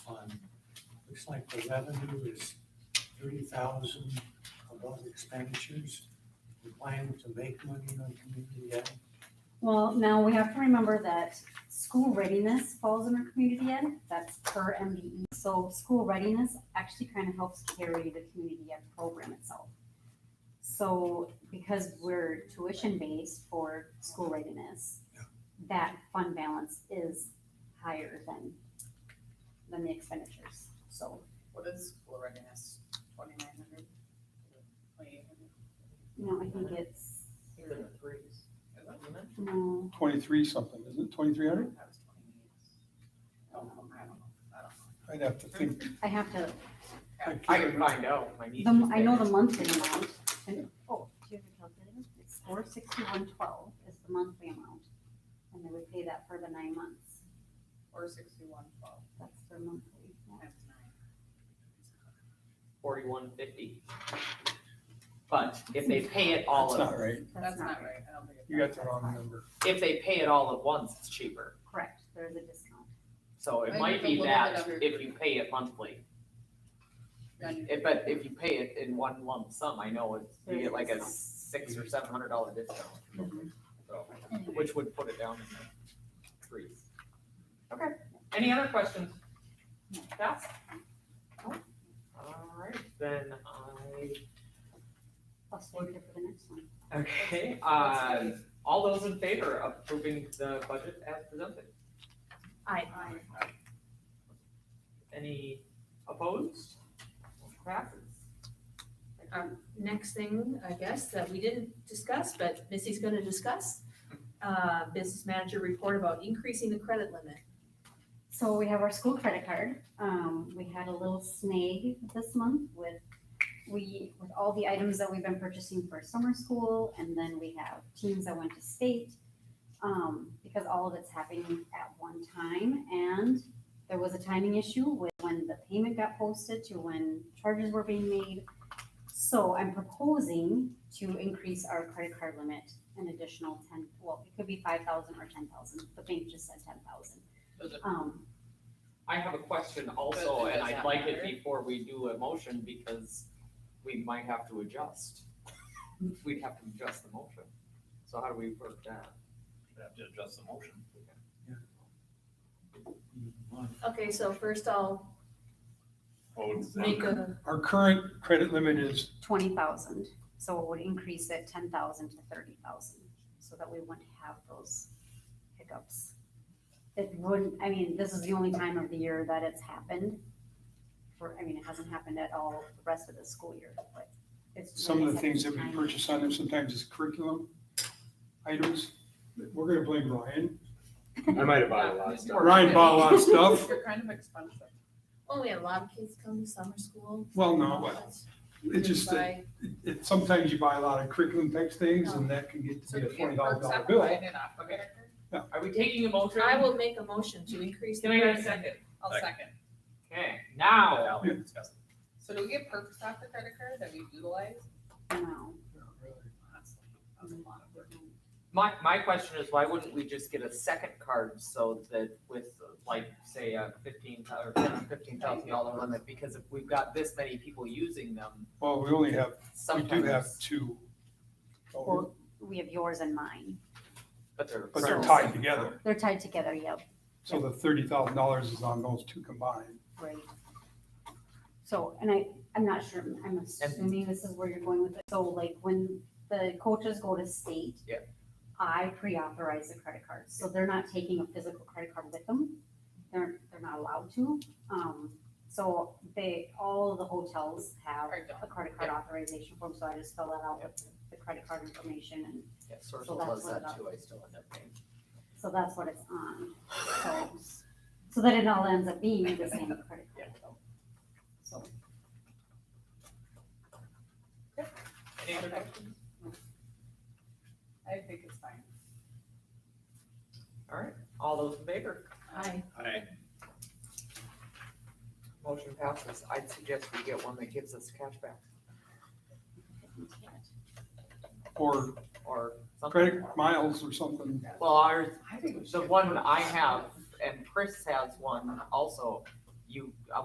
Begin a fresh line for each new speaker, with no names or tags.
looks like the revenue is thirty thousand above expenditures. We're planning to make money on community ed.
Well, now we have to remember that school readiness falls under community ed, that's per MBE. So school readiness actually kind of helps carry the community ed program itself. So because we're tuition based for school readiness,
Yeah.
that fund balance is higher than, than the expenditures, so.
What is school readiness, twenty-nine hundred?
No, I think it's,
You're in the threes.
no,
Twenty-three something, isn't it? Twenty-three
I
hundred?
don't know, I don't know, I don't
I'd have to think.
I have to,
know.
I can find out. My niece
the,
is
I know
there.
the monthly amount, and, oh, do you have a calculator? It's four sixty-one twelve is the monthly amount, and they would pay that for the nine months,
Or sixty-one twelve
that's their monthly. yeah.
times nine.
Forty-one fifty. But if they pay it all,
That's
at-
not right.
That's not right, I don't think. it's
You got the wrong number.
if they pay it all at once, it's cheaper.
Correct, there's a discount,
So it
Maybe
might
it's a
be
little bit
that
under-
if you pay it monthly.
Then
If, but if you pay it in one lump sum, I know it's, you get like a
There's a
six or seven hundred dollar discount. So, which would put it down in the threes. Okay, any other questions? That's. All right, then I
plus take it for the next one.
Okay,
That's
uh, all those in favor of approving the budget as presented?
I-
Any opposed? Motion Passes.
Um, next thing, I guess, that we didn't discuss, but Missy's gonna discuss, uh, business manager report about increasing the credit limit.
So we have our school credit card. Um, we had a little snag this month with, we, with all the items that we've been purchasing for summer school, and then we have teams that went to state. Um, because all of it's happening at one time, and there was a timing issue with when the payment got posted to when charges were being made. So I'm proposing to increase our credit card limit an additional ten, well, it could be five thousand or ten thousand. The bank just said ten thousand.
Does it-
Um,
I have a question also,
Does it-
and
does
I'd
that
like it
matter?
before we do a motion because we might have to adjust. We'd have to adjust the motion. So how do we work that?
We'd have to adjust the motion.
Okay, so first I'll make
Oh,
a,
Our current credit limit is,
twenty thousand, so it would increase it ten thousand to thirty thousand, so that we wouldn't have those hiccups. It wouldn't, I mean, this is the only time of the year that it's happened, for, I mean, it hasn't happened at all the rest of the school year, but it's.
some of the
really
things that we
time.
purchase on there sometimes is curriculum items. We're gonna blame Ryan.
I might have bought a lot of stuff.
Ryan bought a lot of stuff.
You're kind of expensive.
well, we had a lot of kids come to summer school.
Well, no, but it just, that
By-
it, it- sometimes you buy a lot of curriculum type things and that can get
So
to be
do
a
you
twenty
get
dollar
perks on
bill.
buying it off of it?
Are we taking a motion?
I will make a motion to increase. the
Can I get a
credit limit.
second?
I'll
Second.
second.
Okay, now,
Now we discuss it.
So do we get perks off the credit card that we utilize?
No,
That's that's a lot of work.
My, my question is, why wouldn't we just get a second card so that with like, say, a fifteen thou- or fifteen thousand dollar limit? Because if we've got this many people using them,
Well, we only have, we do have
sometimes,
two. Oh,
well, we have yours and mine,
but they're.
But they're
friends.
tied together.
they're tied together, yep,
So the thirty thousand dollars is on those two combined.
right. So, and I, I'm not sure, I'm assuming this is where you're going with it, so like when the coaches go to state.
Yeah.
I pre-authorize the credit cards, so they're not taking a physical credit card with them, they're, they're not allowed to. Um, so they, all of the hotels have
Or don't.
a credit card authorization form, so I just fill that out with the credit card information, and
Yeah, Sourcewell
So that's
does
what
that
that-
too, I still end up paying.
so that's what it's on. So, so that it all ends up being the same credit card. So,
Any other questions?
I think it's fine.
All right, all those in favor,
Aye.
Aye.
motion passes. I'd suggest we get one that gives us cash back
Or
or something.
credit miles or something.
Well, ours, the one I have, and Chris has one also, you,